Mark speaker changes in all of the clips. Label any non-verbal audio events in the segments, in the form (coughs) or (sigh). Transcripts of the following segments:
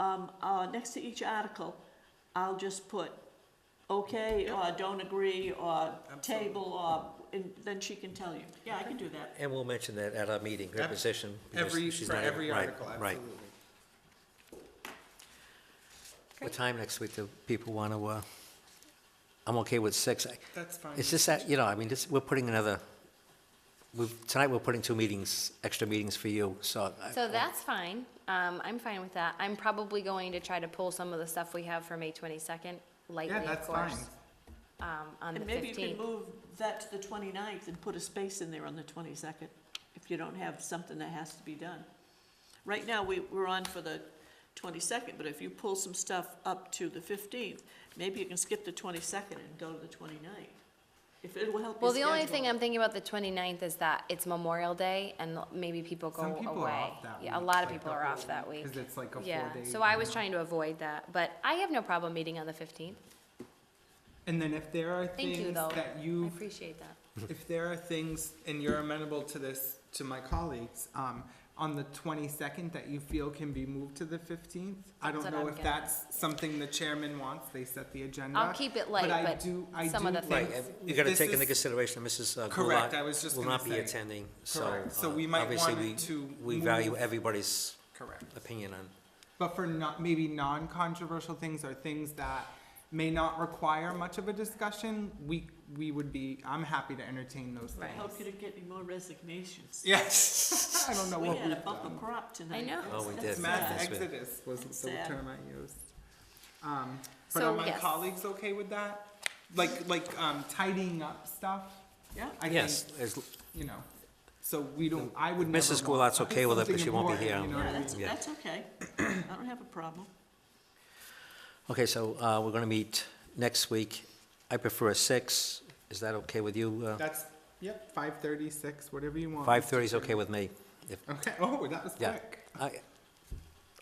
Speaker 1: um, uh, next to each article, I'll just put, okay, or don't agree, or table, or, and then she can tell you. Yeah, I can do that.
Speaker 2: And we'll mention that at our meeting, her
Speaker 3: Ab-
Speaker 2: position. because
Speaker 3: Every,
Speaker 2: she's
Speaker 3: for
Speaker 2: not-
Speaker 3: every
Speaker 2: right,
Speaker 3: article,
Speaker 2: Right.
Speaker 3: absolutely.
Speaker 2: What time next week do people want to, uh, I'm okay with six. I-
Speaker 3: That's fine.
Speaker 2: It's just that, you know, I mean, this, we're putting another, we've, tonight we're putting two meetings, extra meetings for you, so. I-
Speaker 4: So that's fine. Um, I'm fine with that. I'm probably going to try to pull some of the stuff we have for May twenty-second lightly,
Speaker 3: Yeah,
Speaker 4: of
Speaker 3: that's fine.
Speaker 4: course. Um, on the
Speaker 1: And maybe you can
Speaker 4: fifteenth.
Speaker 1: move that to the 29th and put a space in there on the twenty-second, if you don't have something that has to be done. Right now, we, we're on for the twenty-second, but if you pull some stuff up to the fifteenth, maybe you can skip the twenty-second and go to the 29th. If it will help you
Speaker 4: Well, the only
Speaker 1: schedule.
Speaker 4: thing I'm thinking about the 29th is that it's Memorial Day and maybe people go
Speaker 3: Some
Speaker 4: away.
Speaker 3: people are off that
Speaker 4: Yeah, a
Speaker 3: week,
Speaker 4: lot of
Speaker 3: like
Speaker 4: people
Speaker 3: the
Speaker 4: are off
Speaker 3: whole
Speaker 4: that
Speaker 3: week,
Speaker 4: week.
Speaker 3: 'cause it's like a
Speaker 4: Yeah,
Speaker 3: four-day,
Speaker 4: so I was
Speaker 3: you know.
Speaker 4: trying to avoid that, but I have no problem meeting on the fifteenth.
Speaker 3: And then if there are
Speaker 4: Thank you,
Speaker 3: things
Speaker 4: though.
Speaker 3: that
Speaker 4: I
Speaker 3: you,
Speaker 4: appreciate that.
Speaker 3: if there are things, and you're amenable to this, to my colleagues, um, on the twenty-second that you feel can be moved to the fifteenth, I don't
Speaker 4: That's what
Speaker 3: know
Speaker 4: I'm
Speaker 3: if
Speaker 4: getting.
Speaker 3: that's something the chairman wants, they set the agenda.
Speaker 4: I'll keep it light,
Speaker 3: I
Speaker 4: but
Speaker 3: do- I
Speaker 4: some
Speaker 3: do
Speaker 4: of the
Speaker 3: think
Speaker 2: Right,
Speaker 4: things-
Speaker 2: and you got to
Speaker 3: this
Speaker 2: take into
Speaker 3: is-
Speaker 2: consideration, Mrs. uh,
Speaker 3: Correct,
Speaker 2: Goulart
Speaker 3: I was just
Speaker 2: Will
Speaker 3: gonna
Speaker 2: not be
Speaker 3: say.
Speaker 2: attending, so.
Speaker 3: Correct, so
Speaker 2: uh,
Speaker 3: we might
Speaker 2: obviously
Speaker 3: want
Speaker 2: we-
Speaker 3: to
Speaker 2: We value
Speaker 3: move-
Speaker 2: everybody's
Speaker 3: Correct.
Speaker 2: opinion on,
Speaker 3: But for not, maybe non-controversial things or things that may not require much of a discussion, we, we would be, I'm happy to entertain those
Speaker 1: I
Speaker 3: things.
Speaker 1: hope you don't get any more resignations.
Speaker 3: Yes. (laughs) I don't know
Speaker 1: We
Speaker 3: what
Speaker 1: had a
Speaker 3: we've
Speaker 1: bumper
Speaker 3: done.
Speaker 1: crop tonight.
Speaker 4: know.
Speaker 1: That's-
Speaker 2: Oh, we
Speaker 1: that's
Speaker 2: did.
Speaker 1: sad.
Speaker 3: Mass
Speaker 2: Yes, we-
Speaker 3: exodus was the
Speaker 1: Sad.
Speaker 3: term I used. Um, but
Speaker 4: So,
Speaker 3: are my
Speaker 4: yes.
Speaker 3: colleagues okay with that? Like, like, um, tidying up stuff?
Speaker 1: Yeah.
Speaker 3: I
Speaker 2: yes,
Speaker 3: think,
Speaker 2: as-
Speaker 3: You know, so we don't, I would never
Speaker 2: Mrs.
Speaker 3: want-
Speaker 2: Goulart's okay with it, but
Speaker 3: something
Speaker 2: she won't be
Speaker 3: important,
Speaker 2: here.
Speaker 3: you know what
Speaker 1: Yeah,
Speaker 3: I mean?
Speaker 1: that's,
Speaker 2: Yeah.
Speaker 1: that's okay. I don't have a problem.
Speaker 2: okay, so uh, we're going to meet next week. I prefer a six. Is that okay with you? uh,
Speaker 3: That's, yep, five thirty, six, whatever you want.
Speaker 2: 5:30 is okay with me. If,
Speaker 3: Okay, (laughs) oh, that was
Speaker 2: yeah.
Speaker 3: quick.
Speaker 2: I-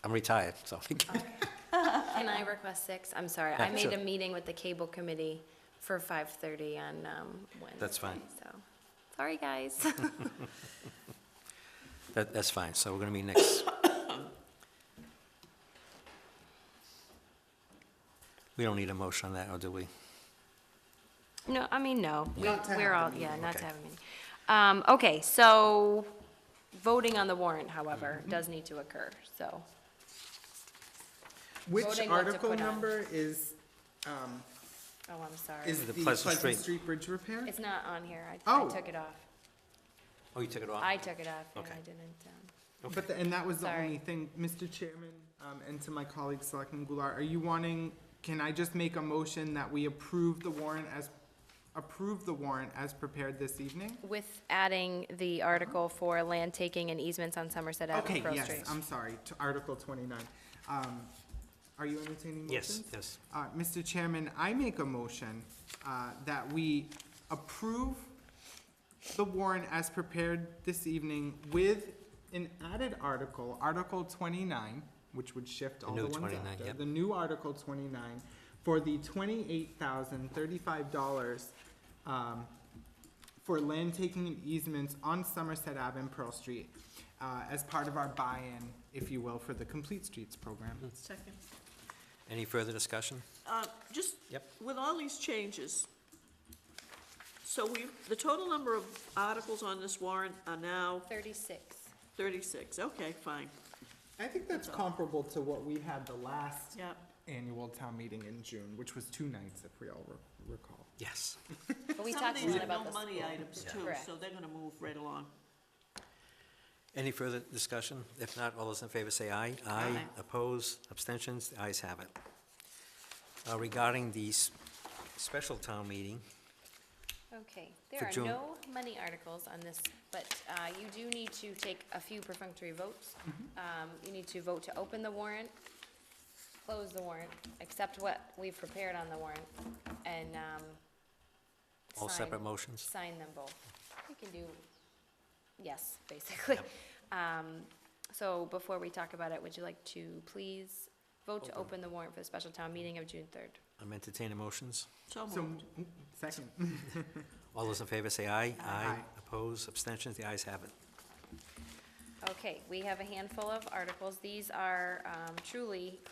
Speaker 2: I'm retired, so. (laughs)
Speaker 4: Can I request six? I'm sorry,
Speaker 2: Yeah,
Speaker 4: I made
Speaker 2: sure.
Speaker 4: a meeting with the cable committee for five thirty on, um, Wednesday.
Speaker 2: That's fine.
Speaker 4: So, sorry, guys. (laughs)
Speaker 2: That, that's fine, so we're gonna meet next. (coughs) We don't need a motion on that, or do we?
Speaker 4: No, I mean, no, we,
Speaker 3: Not to
Speaker 4: we're
Speaker 3: have a
Speaker 4: all, yeah, not to
Speaker 2: okay.
Speaker 4: have a meeting. Um, okay, so, voting on the warrant, however,
Speaker 3: Mm-hmm.
Speaker 4: does need to occur, so.
Speaker 3: Which
Speaker 4: voting what to
Speaker 3: article
Speaker 4: put on.
Speaker 3: number is, um,
Speaker 4: Oh, I'm sorry.
Speaker 3: is
Speaker 2: The
Speaker 3: the
Speaker 2: Pleasant
Speaker 3: Pleasant
Speaker 2: Street.
Speaker 3: Street Bridge repair?
Speaker 4: It's not on here, I, I
Speaker 3: Oh.
Speaker 4: took it off.
Speaker 2: Oh, you took it off?
Speaker 4: I took it off, and
Speaker 2: Okay.
Speaker 4: I didn't, um.
Speaker 3: But, the- and that was the
Speaker 4: Sorry.
Speaker 3: only thing, Mr. Chairman, um, and to my colleague, Selectman Goulart, are you wanting, can I just make a motion that we approve the warrant as, approve the warrant as prepared this evening?
Speaker 4: With adding the article for land taking and easements on Somerset Avenue,
Speaker 3: Okay,
Speaker 4: Pearl
Speaker 3: yes,
Speaker 4: Street.
Speaker 3: I'm sorry, to Article twenty-nine. Um, are you entertaining
Speaker 2: Yes,
Speaker 3: motions?
Speaker 2: yes.
Speaker 3: Uh, Mr. Chairman, I make a motion, uh, that we approve the warrant as prepared this evening with an added article, Article twenty-nine, which would shift all
Speaker 2: new
Speaker 3: the ones
Speaker 2: 29,
Speaker 3: after.
Speaker 2: yep.
Speaker 3: The new Article twenty-nine, for the twenty-eight thousand thirty-five dollars, um, for land taking and easements on Somerset Ave and Pearl Street, uh, as part of our buy-in, if you will, for the Complete Streets program.
Speaker 1: Second.
Speaker 2: Any further discussion?
Speaker 1: Uh, Just,
Speaker 2: Yep.
Speaker 1: with all these changes, so we, the total number of articles on this warrant are now
Speaker 4: Thirty-six.
Speaker 3: (laughs)
Speaker 1: thirty-six, okay, fine,
Speaker 3: I think that's comparable to what we had the last
Speaker 1: yeah.
Speaker 3: annual town meeting in June, which was two nights, if we all re- recall.
Speaker 2: Yes.
Speaker 4: But we talked a lot about the
Speaker 1: Some of these are no money
Speaker 4: school.
Speaker 1: items
Speaker 4: Yeah.
Speaker 1: too,
Speaker 4: Correct.
Speaker 1: so they're gonna move right along.
Speaker 2: Any further discussion? If not, all those in favor say aye. Aye. Oppose, abstentions, the ayes have it. Uh, Regarding the s- special town meeting,
Speaker 4: Okay,
Speaker 2: For
Speaker 4: there are
Speaker 2: June.
Speaker 4: no money articles on this, but uh, you do need to take a few perfunctory votes.
Speaker 2: Mm-hmm.
Speaker 4: Um, You need to vote to open the warrant, close the warrant, accept what we've prepared on the warrant, and um,
Speaker 2: all
Speaker 4: sign-
Speaker 2: separate Mm-hmm. motions?
Speaker 4: Sign them both. You can do, yes, basically. Um, So before we talk about it, would you like to please vote to open the warrant for the special town meeting of June 3rd?
Speaker 2: I'm entertaining motions.
Speaker 1: So
Speaker 3: So,
Speaker 1: moved.
Speaker 3: mm, second,
Speaker 2: All those in favor say aye.
Speaker 3: Aye.
Speaker 2: Oppose, abstentions, the ayes have it.
Speaker 4: Okay, we have a handful of articles. These are um, truly